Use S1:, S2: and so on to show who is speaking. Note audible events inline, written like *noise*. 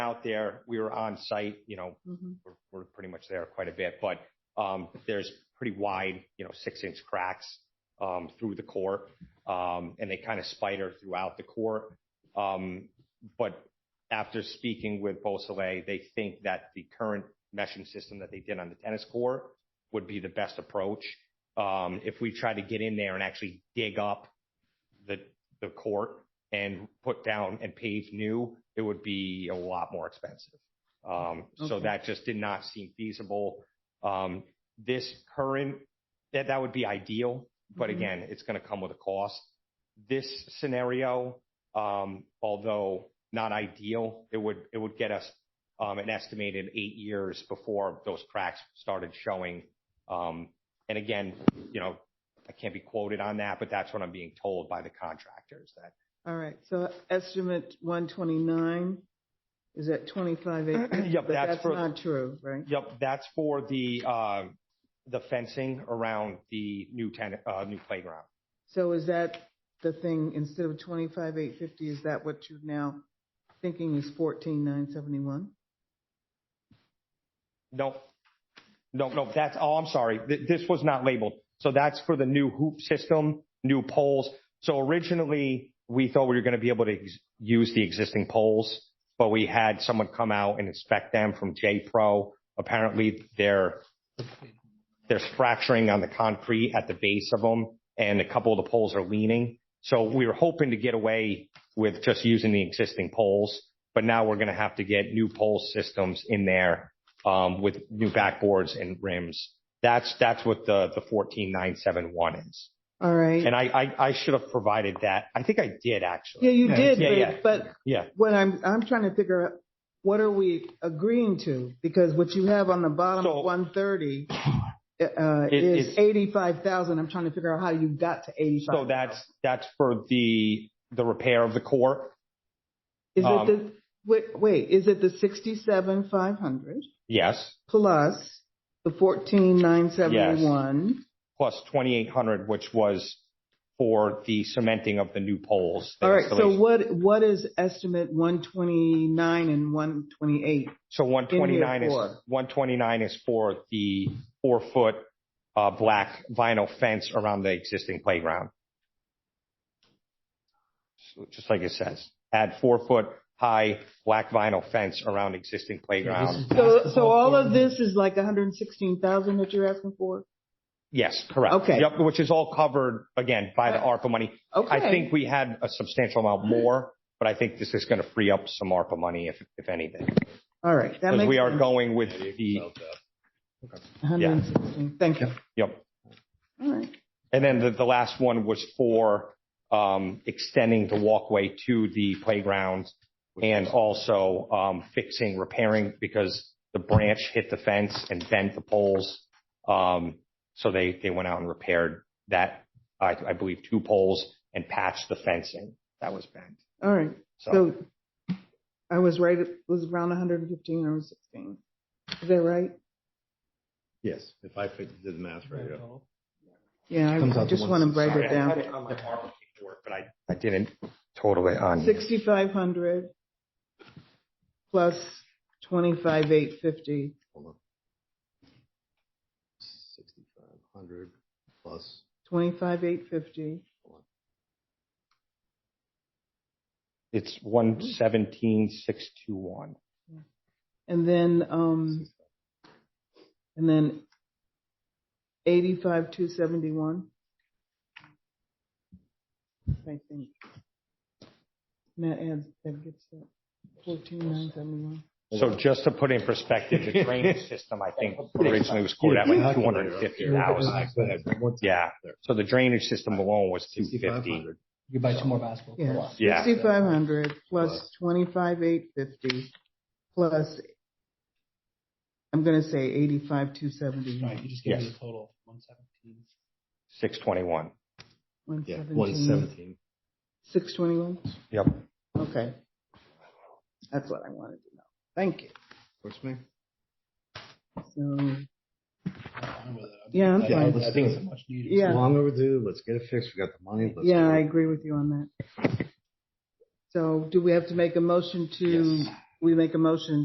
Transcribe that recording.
S1: out there. We were on site, you know,
S2: Mhm.
S1: we're pretty much there quite a bit, but Um, there's pretty wide, you know, 6-inch cracks um, through the core, Um, and they kind of spider throughout the core. Um, But after speaking with Beausoleil, they think that the current meshing system that they did on the tennis court would be the best approach. Um, If we try to get in there and actually dig up the court and put down and pave new, it would be a lot more expensive. Um, So
S2: Okay.
S1: that just did not seem feasible. Um, This current... That would be ideal, but
S2: Mhm.
S1: again, it's gonna come with a cost. This scenario, um, although not ideal, it would get us um, an estimated eight years before those cracks started showing. Um, And again, you know, I can't be quoted on that, but that's what I'm being told by the contractors, that
S2: All right, so estimate 129 is at 25 acres?
S1: *clears throat* Yep,
S2: But
S1: that's
S2: that's
S1: for-
S2: not true, right?
S1: Yep, that's for the, uh, the fencing around the new tennis, uh, new playground.
S2: So is that the thing, instead of 25,850, is that what you're now thinking is 14,971?
S1: No, no, no, that's, oh, I'm sorry. Th- This was not labeled. So that's for the new hoop system, new poles. So originally, we thought we were gonna be able to ex- use the existing poles, but we had someone come out and inspect them from J-Pro. Apparently, they're, there's fracturing on the concrete at the base of them, and a couple of the poles are leaning. So we were hoping to get away with just using the existing poles, but now we're gonna have to get new pole systems in there, um, with new backboards and rims. That's, that's what the, the 14971 is.
S2: All right.
S1: And I, I, I should have provided that. I think I did,
S2: Yeah,
S1: actually.
S2: you
S3: Yeah,
S2: did,
S1: yeah,
S2: but-
S1: yeah.
S2: but
S1: Yeah,
S2: what I'm, I'm trying to figure out, what are we agreeing to? Because what you have on the bottom
S1: So- *clears throat*
S2: of 130 uh,
S1: It-
S2: is
S1: it's-
S2: 85,000. I'm trying to figure out how you got to 85.
S1: so that's, that's for the, the repair of the court.
S2: Is
S1: um,
S2: it the, wait, wait, is it the 67,500
S1: Yes,
S2: plus the 14,971?
S1: plus 2,800, which was for the cementing of the new poles. the
S2: All right, so
S1: installation.
S2: what, what is estimate 129 and 128?
S1: So one twenty nine is,
S2: for?
S1: one twenty nine is for the four foot, uh, black vinyl fence around the existing playground. So Just like it says, add four foot high black vinyl fence around existing playground.
S2: So, so all of this is like 116,000 that you're asking for?
S1: Yes, correct.
S2: Okay. Uh,
S1: Yep, which is all covered again by the ARPA money.
S2: Okay.
S1: I think we had a substantial amount more, but I think this is going to free up some ARPA money if, if anything.
S2: All right, that
S1: Because
S2: makes
S1: we are
S2: sense.
S1: going with the, yeah.
S2: 116, thank you.
S1: yep.
S2: All right.
S1: And then the, the last one was for um, extending the walkway to the playground and also um, fixing, repairing, because the branch hit the fence and bent the poles. Um, So they, they went out and repaired that, I, I believe, two poles and patched the fencing that was bent.
S2: All right,
S1: So,
S2: so I was right, it was around 115 or 116. Is that right?
S3: Yes, if I fit- did the math right. yeah.
S2: Yeah,
S3: Comes
S2: I
S3: out to
S2: just want to write
S1: sorry,
S2: it
S1: I had
S2: down.
S1: it on my ARPA paperwork, but I, I didn't total it on. here.
S2: 6,500 plus 25,850.
S3: Hold on. 6,500 plus,
S2: 25,850.
S1: It's 117,621.
S2: And then, um, and then 85,271. I think. And that adds, that gets that 14,971.
S1: So just to put in perspective, the drainage system, I think originally Oh, was quoted at like two hundred and fifty thousand. Yeah, so the drainage system alone was two fifty.
S3: 6,500.
S4: You buy two more basketball
S2: Yeah.
S4: courts.
S1: Yeah.
S2: um, 6,500 plus
S3: Plus.
S2: 25,850 plus, I'm going to say 85,271.
S4: Right, you just gave me
S1: Yes.
S4: the total, one seventeen.
S1: Six twenty-one.
S3: Yeah,
S2: 117.
S3: 117.
S2: 621?
S1: Yep.
S2: Okay. That's what I wanted to know. Thank you.
S3: Works for me.
S2: So,
S4: I'm with it.
S2: yeah, I'm
S4: I-
S3: Yeah,
S2: fine.
S4: I think it's much needed.
S2: Yeah.
S3: Long overdue, let's get it fixed, we got the money. let's
S2: Yeah,
S3: do
S2: I
S3: it.
S2: agree with you on that. So do we have to make a motion to we make a motion